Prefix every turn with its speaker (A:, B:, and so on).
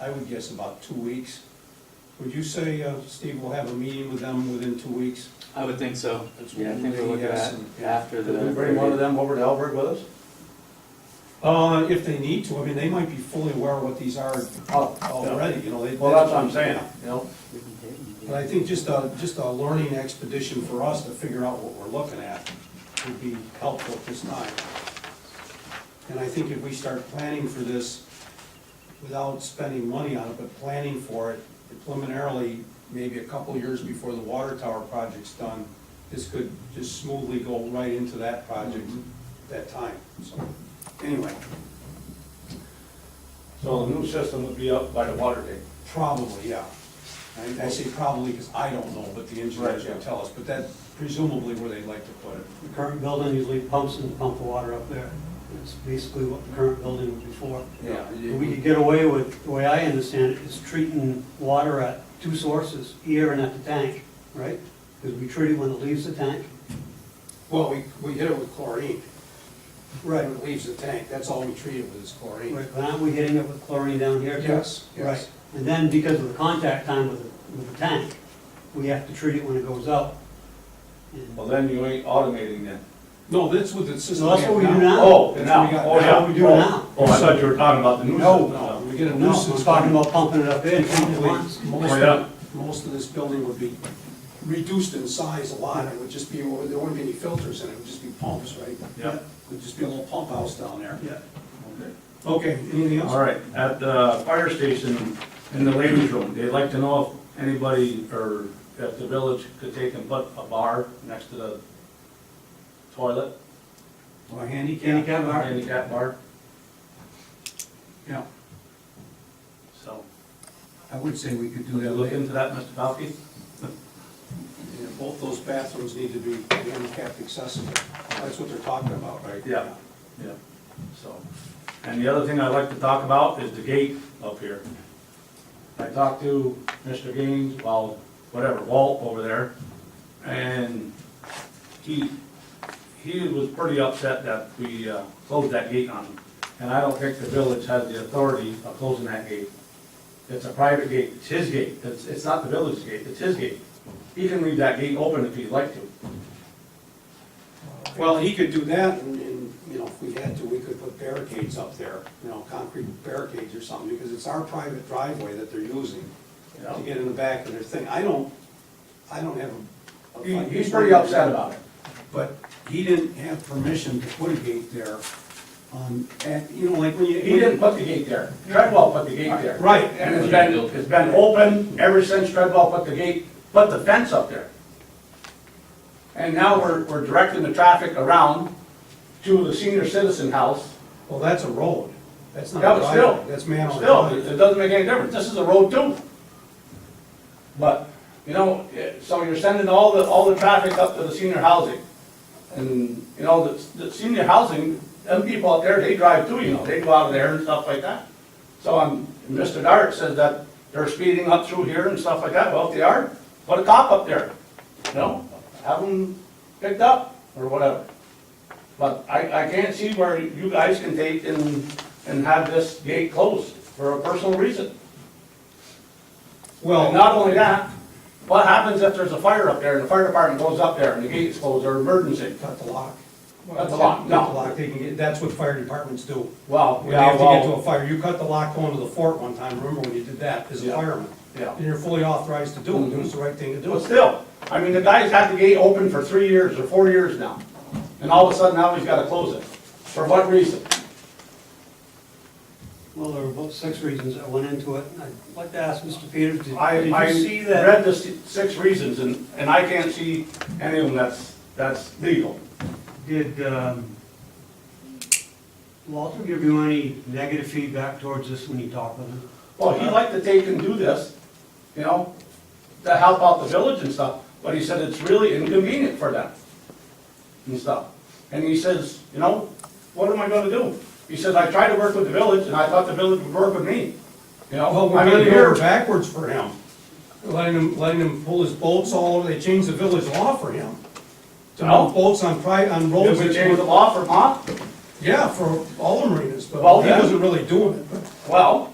A: I would guess about two weeks. Would you say, uh, Steve, we'll have a meeting with them within two weeks?
B: I would think so.
A: That's
B: Yeah, I
A: what
B: think we're
A: we
B: looking
A: asked
B: at
A: them, yeah.
B: after the.
C: Could we bring one of them over to Elbert with us?
A: Uh, if they need to, I mean, they might be fully aware of what these are
C: Oh,
A: already, you know, they.
C: Well, that's what I'm saying, you know?
A: But I think just a, just a learning expedition for us to figure out what we're looking at would be helpful at this time. And I think if we start planning for this without spending money on it, but planning for it preliminarily, maybe a couple years before the water tower project's done, this could just smoothly go right into that project at that time, so, anyway,
C: So the new system would be up by the water tank.
A: probably, yeah. I, I say probably because I don't know, but the engineers
C: Right, yeah.
A: will tell us, but that presumably where they'd like to put it.
D: The current building usually pumps and pump the water up there. That's basically what the current building would be for.
C: Yeah.
D: And we could get away with, the way I understand it, is treating water at two sources, here and at the tank, right? Because we treat it when it leaves the tank.
A: Well, we, we hit it with chlorine.
D: Right.
A: When it leaves the tank, that's all we treat it with is chlorine.
D: Right, but aren't we hitting it with chlorine down here too?
A: Yes, yes.
D: Right, and then because of the contact time with the, with the tank, we have to treat it when it goes out. And-
C: Well, then you ain't automating then.
A: No, that's what the system.
D: No, that's what we do
A: have
D: now.
C: Oh,
A: That's
C: now,
A: what we got now.
C: oh, yeah.
D: What we do
C: Oh,
D: now.
C: Oh, I thought you were talking about the new
A: No,
C: system.
A: no, Oh, we get a
D: No, I'm
A: nuisance.
D: talking about pumping it up in, pumping it
A: Probably
D: once.
A: most
C: Oh, yeah.
A: of- Most of this building would be reduced in size a lot, it would just be, there wouldn't be any filters in it, it would just be pumps, right?
C: Yeah.
A: It would just be a little pump house down there.
D: Yeah.
C: Okay.
A: Okay, anything else?
C: All right, at the fire station in the ladies' room, they'd like to know if anybody or if the village could take and put a bar next to the toilet,
A: Or handicap?
D: Handicap bar?
C: handicap bar,
A: Yeah,
C: so.
A: I would say we could do
C: Would you
A: that
C: look
A: later.
C: into that, Mr. Falke?
A: Yeah, both those bathrooms need to be handicapped accessible, that's what they're talking about, right?
C: Yeah. Yeah. So, and the other thing I'd like to talk about is the gate up here. I talked to Mr. Gaines, well, whatever, Walt over there, and he, he was pretty upset that we uh, closed that gate on him. And I don't think the village has the authority of closing that gate. It's a private gate, it's his gate, it's, it's not the village's gate, it's his gate. He can leave that gate open if he'd like to.
A: Well, he could do that, and, and, you know, if we had to, we could put barricades up there, you know, concrete barricades or something, because it's our private driveway that they're using
C: you
A: to
C: know?
A: get in the back of their thing. I don't, I don't have a.
C: He- He's pretty upset about it.
A: But he didn't have permission to put a gate there on, at, you know, like when you.
C: He didn't put the gate there. Treadwell put the gate there.
A: Right.
C: And it's been, it's been open ever since Treadwell put the gate, put the fence up there. And now we're, we're directing the traffic around to the senior citizen house.
A: Well, that's a road. That's not
C: Yeah,
A: a
C: but still,
A: driveway, that's man on the
C: Still,
A: road.
C: it doesn't make any difference. This is a road too. But, you know, it- so you're sending all the, all the traffic up to the senior housing. And, you know, the, the senior housing, them people out there, they drive too, you know, they go out of there and stuff like that. So I'm, Mr. Dart says that they're speeding up through here and stuff like that. Well, if they are, put a cop up there. You know, have them picked up or whatever. But I, I can't see where you guys can take and, and have this gate closed for a personal reason.
A: Well.
C: And not only that, what happens if there's a fire up there and the fire department goes up there and the gate's closed or emergency?
A: Cut the lock.
C: Cut the lock, no.
A: Cut the lock, they can get, that's what fire departments do.
C: Well,
A: When they
C: yeah,
A: have to get to a
C: well,
A: fire, you cut the lock going to the fort one time, remember when you did that as a
C: Yeah.
A: fireman?
C: Yeah.
A: And you're fully authorized to do it, it was the right thing to do.
C: but still, I mean, the guy's had the gate open for three years or four years now. And all of a sudden now he's gotta close it. For what reason?
D: Well, there were about six reasons that went into it. and I'd like to ask Mr. Peters, did
C: I,
D: did
C: I
D: you see that?
C: read the si- six reasons and, and I can't see any of them that's, that's legal.
D: Did um, Walter give you any negative feedback towards this when you talked with him?
C: Well, he'd like to take and do this, you know, to help out the village and stuff, but he said it's really inconvenient for them and stuff. And he says, you know, what am I gonna do? He says, I tried to work with the village and I thought the village would work with me, you
A: Well,
C: know?
A: we're
C: I mean,
A: really
C: here,
A: going backwards for him. Letting him, letting him pull his bolts all over, they changed the village law for him. To
C: No.
A: mount bolts on pri, on roads.
C: did we
A: that
C: change the
A: were-
C: law for Ma?
A: Yeah, for all the marinas, but
C: Well,
A: he
C: then-
A: wasn't really doing it.
C: Well,